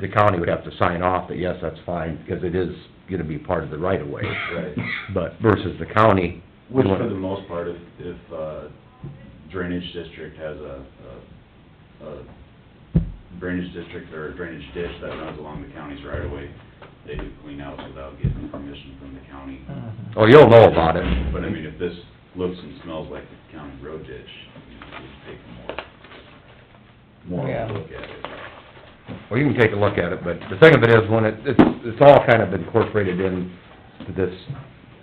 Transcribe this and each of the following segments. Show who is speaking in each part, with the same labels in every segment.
Speaker 1: the county would have to sign off that, yes, that's fine, because it is gonna be part of the right of way.
Speaker 2: Right.
Speaker 1: But versus the county. we
Speaker 2: Which
Speaker 1: want-
Speaker 2: for the most part, if, if uh, drainage district has a, a- a drainage district or a drainage ditch that runs along the county's right of way, they do clean outs without getting permission from the county.
Speaker 1: Oh, you'll know about it.
Speaker 2: But I mean, if this looks and smells like the county road ditch, you know, we'd take more, more
Speaker 3: Yeah.
Speaker 2: of a look at it.
Speaker 1: Well, you can take a look at it, but the thing of it is, when it, it's, it's all kind of incorporated in to this,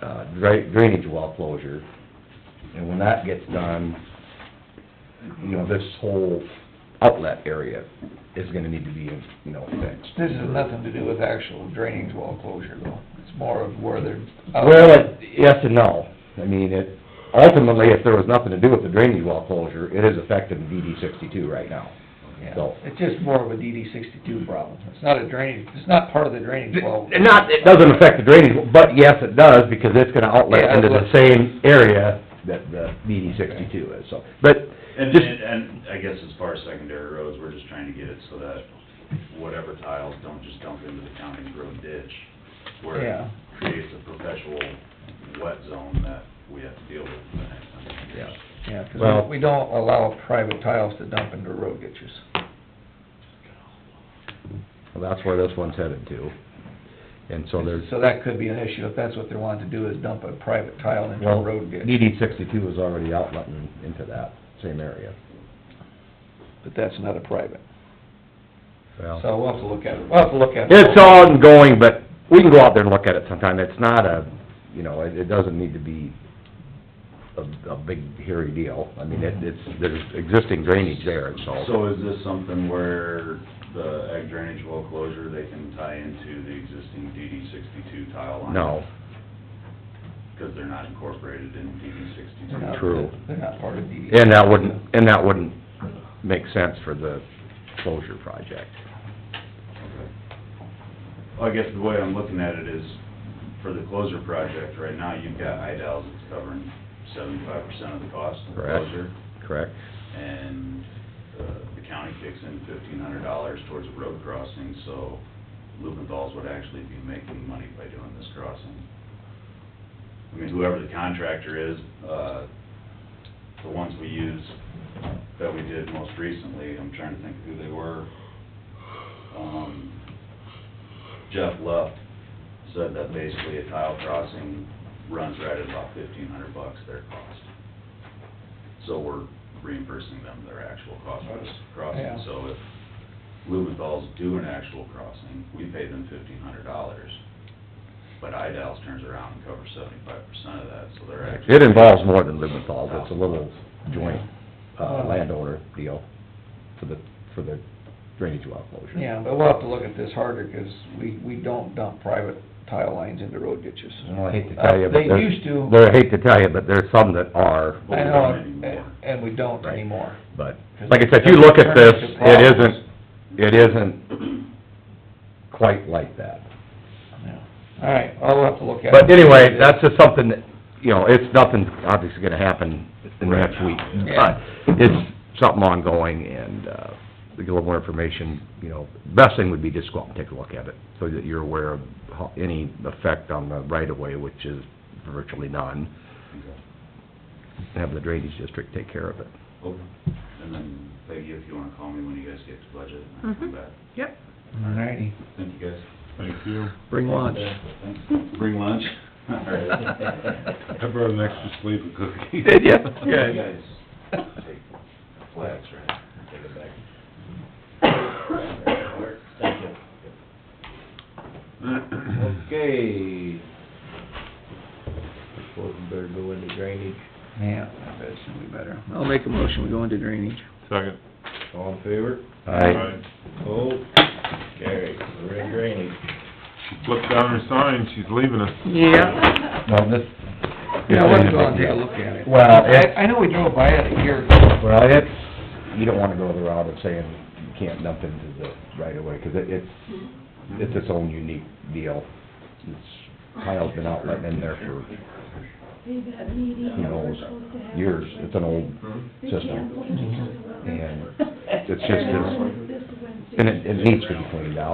Speaker 1: uh, dra- drainage well closure. And when that gets done, you know, this whole outlet area is gonna need to be, you know, fixed.
Speaker 3: This has nothing to do with actual drainage well closure though, it's more of where they're.
Speaker 1: Well, it- yes and no. I mean, it, ultimately, if there was nothing to do with the drainage well closure, it is effective in DD sixty-two right now.
Speaker 3: Yeah.
Speaker 1: so-
Speaker 3: It's just more of a DD sixty-two problem, it's not a drainage, it's not part of the drainage well.
Speaker 1: And not, it doesn't affect the drainage, but yes, it does, because it's gonna outlet
Speaker 3: Yeah,
Speaker 1: into the
Speaker 3: outlet.
Speaker 1: same area that the DD sixty-two is, so. But,
Speaker 2: And,
Speaker 1: just,
Speaker 2: and and I guess as far as secondary roads, we're just trying to get it so that whatever tiles don't just dump into the county road ditch, where
Speaker 3: Yeah.
Speaker 2: it creates a perpetual wet zone that we have to deal with for the next hundred years.
Speaker 1: Yeah.
Speaker 3: Yeah, 'cause
Speaker 1: Well-
Speaker 3: we- we don't allow private tiles to dump into road ditches.
Speaker 1: well, that's where this one's headed to. And so there's,
Speaker 3: So that could be an issue, if that's what they want to do, is dump a private tile into a
Speaker 1: well,
Speaker 3: road ditch.
Speaker 1: DD sixty-two is already outletting into that same area.
Speaker 3: But that's not a private,
Speaker 1: Well.
Speaker 3: so we'll have to look at it, we'll have to look at it.
Speaker 1: It's ongoing, but we can go out there and look at it sometime. It's not a, you know, it, it doesn't need to be a, a big hairy deal. I mean, it, it's, there's existing drainage there, and so.
Speaker 2: So is this something where the ag drainage well closure, they can tie into the existing DD sixty-two tile line?
Speaker 1: No,
Speaker 2: Because they're not incorporated in DD
Speaker 3: They're not-
Speaker 2: sixty-two.
Speaker 1: True.
Speaker 3: They're not part of DD.
Speaker 1: and that wouldn't, and that wouldn't make sense for the closure project.
Speaker 2: Well, I guess the way I'm looking at it is, for the closure project, right now, you've got IDALs that's covering seventy-five percent of the cost of the
Speaker 1: Correct.
Speaker 2: closure.
Speaker 1: Correct?
Speaker 2: And, uh, the county kicks in fifteen hundred dollars towards a road crossing, so Lubenthal's would actually be making money by doing this crossing. I mean, whoever the contractor is, uh, the ones we use that we did most recently, I'm trying to think who they were. Um, Jeff Luff said that basically a tile crossing runs right at about fifteen hundred bucks their cost. So we're reimbursing them their actual cost for this
Speaker 3: Yeah.
Speaker 2: crossing. So if Lubenthal's do an actual crossing, we pay them fifteen hundred dollars. But Idals turns around and covers seventy-five percent of that, so they're actually.
Speaker 1: It involves more than Lubenthal, it's a little joint, uh, landowner deal for the, for the drainage well closure.
Speaker 3: Yeah, but we'll have to look at this harder, 'cause we, we don't dump private tile lines into road ditches.
Speaker 1: Well, I hate to tell you,
Speaker 3: Uh,
Speaker 1: but
Speaker 3: They
Speaker 1: there's-
Speaker 3: used to.
Speaker 1: There, I hate to tell you, but there's some that are,
Speaker 2: But we
Speaker 3: I know,
Speaker 2: don't
Speaker 3: and-
Speaker 2: anymore.
Speaker 3: and we don't
Speaker 1: Right.
Speaker 3: anymore.
Speaker 1: but, like I said, if you look at this, it isn't, it isn't quite like that.
Speaker 3: Yeah. All right, I'll have to look at it.
Speaker 1: But anyway, that's just something that, you know, it's nothing obviously gonna happen in the next week,
Speaker 3: Yeah.
Speaker 1: but it's something ongoing, and, uh, to get a little more information, you know, best thing would be just go out and take a look at it, so that you're aware of how, any effect on the right-of-way, which is virtually none,
Speaker 2: Okay.
Speaker 1: and have the drainage district take care of it.
Speaker 2: Okay. Oh, And then Peggy, if you wanna call me when you guys get to budget, I'll come back.
Speaker 3: All righty.
Speaker 2: Thank you, guys.
Speaker 4: Thank you.
Speaker 1: Bring lunch.
Speaker 2: Thanks. Bring lunch? All right.
Speaker 4: I brought an extra sleeve of cookies.
Speaker 1: Did ya?
Speaker 2: You guys take flags, right? Take it back. Thank you.
Speaker 5: Okay. Suppose we better go into drainage.
Speaker 3: Yeah, I bet it's gonna be better. I'll make a motion, we go into drainage.
Speaker 4: Second.
Speaker 5: All in favor?
Speaker 1: Aye.
Speaker 4: Alright.
Speaker 5: Oh, carry. We're in drainage.
Speaker 4: She flipped down her sign, she's leaving us.
Speaker 3: Yeah.
Speaker 1: Well, this...
Speaker 3: Yeah, I wanna go and take a look at it.
Speaker 1: Well, it-
Speaker 3: I, I know we drove by it a year ago.
Speaker 1: Well, it's, you don't wanna go the route of saying you can't dump into the right of way, 'cause it, it's, it's its own unique deal. It's, tile's been out letting in there for,
Speaker 6: who knows, years, it's an old system. And it's just,
Speaker 1: it's just,
Speaker 6: it's-
Speaker 1: and it, it needs to be cleaned out.